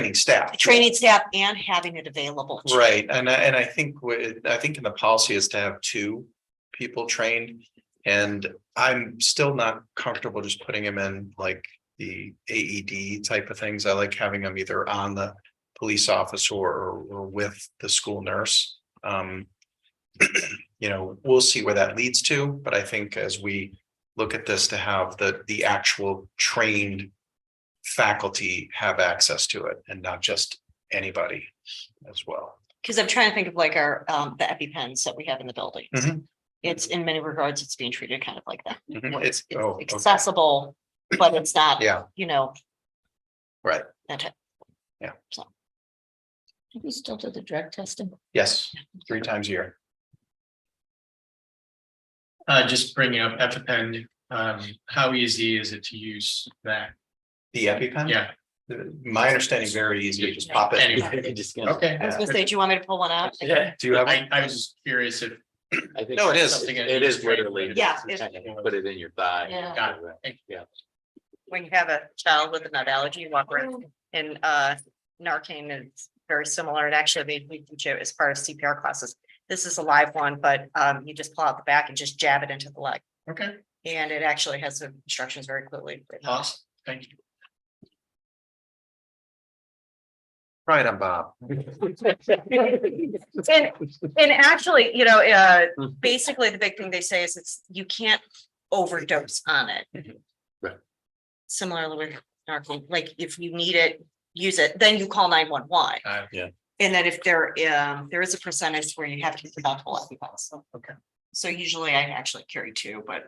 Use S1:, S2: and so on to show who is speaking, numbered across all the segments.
S1: training staff.
S2: training staff and having it available. to-
S1: Right, and I, and I think with, I think in the policy is to have two people trained. And I'm still not comfortable just putting them in like the AED type of things. I like having them either on the police officer or, or with the school nurse. Um. You know, we'll see where that leads to, but I think as we look at this to have the, the actual trained faculty have access to it and not just anybody as well.
S2: Cause I'm trying to think of like our, um, the EpiPens that we have in the building.
S1: Mhm.
S2: It's in many regards, it's being treated kind of like that.
S1: Mhm,
S2: where
S1: It's, oh, okay,
S2: Accessible, but it's not,
S1: yeah,
S2: you know,
S1: right,
S2: that type.
S1: Yeah.
S2: So,
S3: We still do the drug testing.
S1: yes, three times a year.
S4: Uh, just bringing up EpiPen, um, how easy is it to use that?
S1: The EpiPen?
S4: Yeah,
S1: The- My understanding, is very easy, you just pop it.
S4: Anyway. okay.
S2: I was gonna say, do you want me to pull one out?
S5: Yeah,
S1: Do you have,
S4: I, I was just curious if,
S5: I think.
S1: No, it is.
S5: Something It is literally.
S2: Yeah,
S5: You
S2: it's-
S5: kind of Put it in your thigh.
S2: Yeah.
S4: Got
S2: When you have a child with a nut allergy, you walk around and, uh, Narcan is very similar. And actually, they- we teach it as part of CPR classes. This is a live one, but, um, you just pull out the back and just jab it into the leg.
S4: okay,
S2: And it actually has the instructions very clearly. written out.
S4: awesome, thank you.
S1: right on Bob,
S2: And, and actually, you know, uh,
S5: Mhm.
S2: basically the big thing they say is it's, you can't overdose on it.
S5: Mm-hmm. Right.
S2: Similarly with narcan, like if you need it, use it, then you call nine one one.
S4: Uh,
S5: yeah.
S2: And then if there, um, there is a percentage where you have to give out whole episodes.
S4: Okay.
S2: So usually I actually carry two, but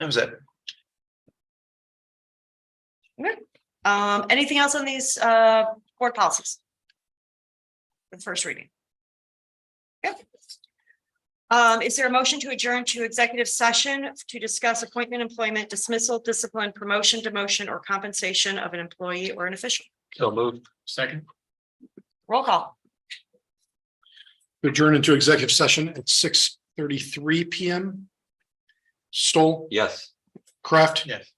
S1: that was it,
S2: um, anything else on these, uh, board policies? The first reading. Yep. Um, is there a motion to adjourn to executive session to discuss appointment, employment, dismissal, discipline, promotion, demotion, or compensation of an employee or an official?
S5: So moved.
S4: Second,
S2: Roll call.
S6: adjourn into executive session at six thirty-three PM. Stoll,
S5: Yes.
S6: Kraft,
S4: yes.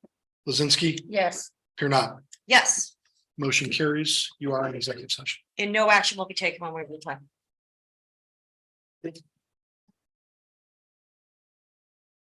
S6: Lazinski,
S3: Yes.
S6: here not.
S2: Yes,
S6: Motion carries. You are in executive session.
S2: and no action will be taken when we return.